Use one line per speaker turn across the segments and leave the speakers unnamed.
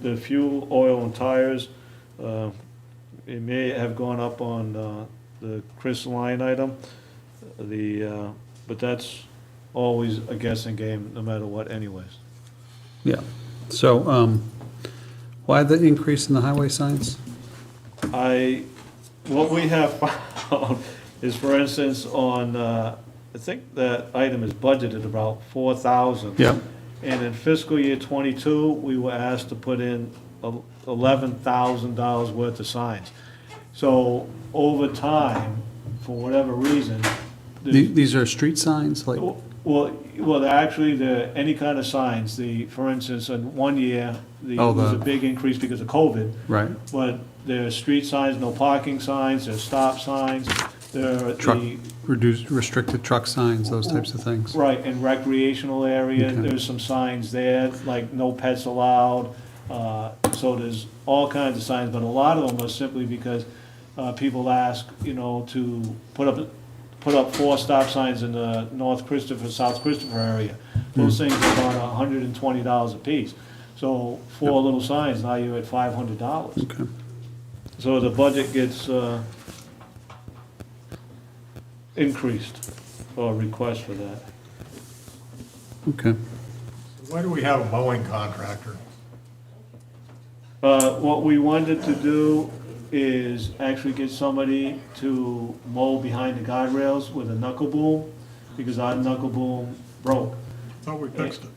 the fuel, oil, and tires, uh, it may have gone up on uh, the Chris line item, the, uh, but that's always a guessing game, no matter what anyways.
Yeah, so, um, why the increase in the highway signs?
I, what we have found is, for instance, on, uh, I think that item is budgeted about four thousand.
Yeah.
And in fiscal year twenty-two, we were asked to put in eleven thousand dollars worth of signs. So over time, for whatever reason,
The- These are street signs, like,
well, well, actually, the, any kind of signs, the, for instance, in one year, the,
Oh,
there was a
the-
big increase because of COVID.
right,
But there are street signs, no parking signs, there's stop signs, there are
truck,
the,
reduced, restricted truck signs, those types of things.
right, in recreational area,
Okay.
there's some signs there, like no pets allowed. uh, So there's all kinds of signs, but a lot of them are simply because uh, people ask, you know, to put up, put up four stop signs in the North Christopher, South Christopher area.
Hmm.
Those things are about hundred and twenty dollars apiece. So four little signs, now you're at five hundred dollars.
Okay,
So the budget gets uh, increased, or request for that.
okay.
Why do we have a mowing contractor?
Uh, What we wanted to do is actually get somebody to mow behind the guardrails with a knuckle boom, because our knuckle boom broke.
Thought we fixed it.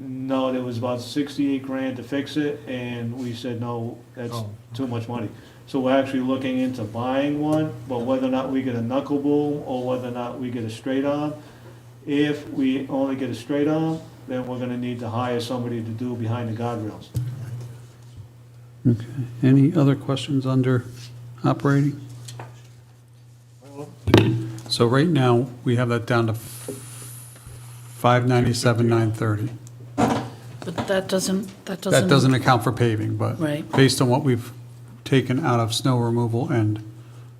No, there was about sixty-eight grand to fix it, and we said, no, that's
Oh.
too much money. So we're actually looking into buying one, but whether or not we get a knuckle boom, or whether or not we get a straight arm. If we only get a straight arm, then we're gonna need to hire somebody to do behind the guardrails.
Okay. Any other questions under operating? So right now, we have that down to five ninety-seven, nine thirty.
But that doesn't, that
That
doesn't.
doesn't account for paving, but
Right.
based on what we've taken out of snow removal and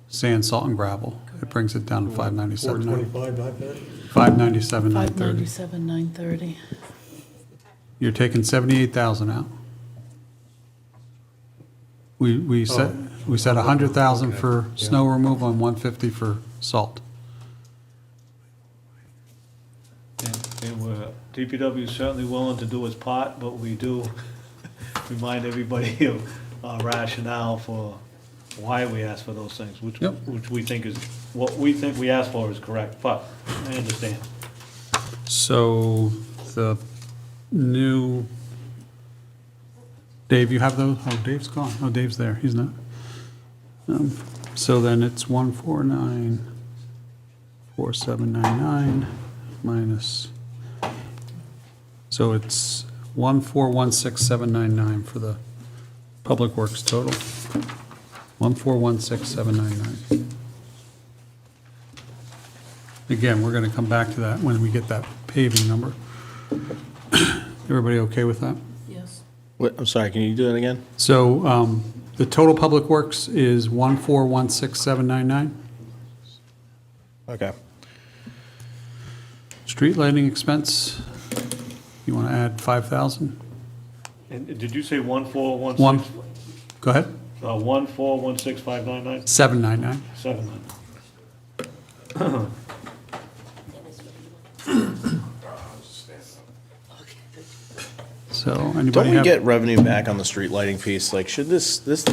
sand, salt, and gravel, it brings it down to five
Four
ninety-seven, nine,
twenty-five, not that?
five ninety-seven, nine
Five
thirty.
ninety-seven, nine thirty.
You're taking seventy-eight thousand out. We, we set, we set a hundred thousand for snow removal and one fifty for salt.
And- And we're, DPW is certainly willing to do its part, but we do remind everybody of our rationale for why we ask for those things, which,
Yep.
which we think is, what we think we asked for is correct, but I understand.
So the new, Dave, you have those? Oh, Dave's gone. Oh, Dave's there. He's not. Um, So then it's one four nine, four seven nine nine minus, so it's one four one six seven nine nine for the Public Works total. One four one six seven nine nine. Again, we're gonna come back to that when we get that paving number. Everybody okay with that?
Yes.
Wait, I'm sorry, can you do that again?
So, um, the total public works is one four one six seven nine nine.
Okay.
Street lighting expense, you wanna add five thousand?
And did you say one four, one
One,
six?
go ahead,
Uh, one four, one six, five nine nine,
seven nine nine.
seven nine.
So
Don't
anybody
we
have?
get revenue back on the street lighting piece? Like, should this, this,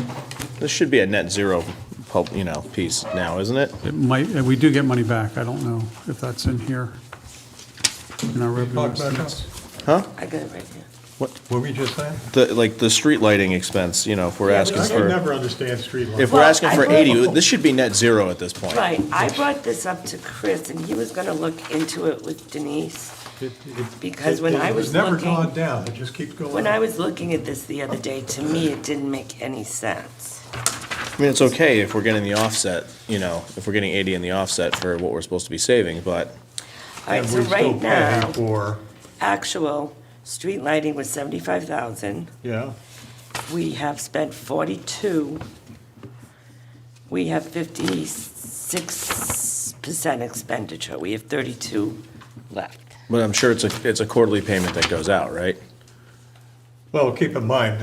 this should be a net zero, pub- you know, piece now, isn't it?
It might, uh, we do get money back. I don't know if that's in here. In our revenue
Talk back up.
estimates.
I got it right here.
What were you just saying?
The, like, the street lighting expense, you know, if we're asking
I can
for,
never understand street lighting.
if we're
Well,
asking
I
for
brought-
eighty, this should be net zero at this point.
Right, I brought this up to Chris, and he was gonna look into it with Denise,
It- it-
because when
it-
I
it
was
Never
looking-
gone down, it just keeps going
When I
up.
was looking at this the other day, to me, it didn't make any sense.
I mean, it's okay if we're getting the offset, you know, if we're getting eighty in the offset for what we're supposed to be saving, but
All right,
And
so
we still
right
pay
now,
for,
actual street lighting was seventy-five thousand.
yeah,
We have spent forty-two. We have fifty-six percent expenditure. We have thirty-two left.
But I'm sure it's a, it's a quarterly payment that goes out, right?
well, keep in mind,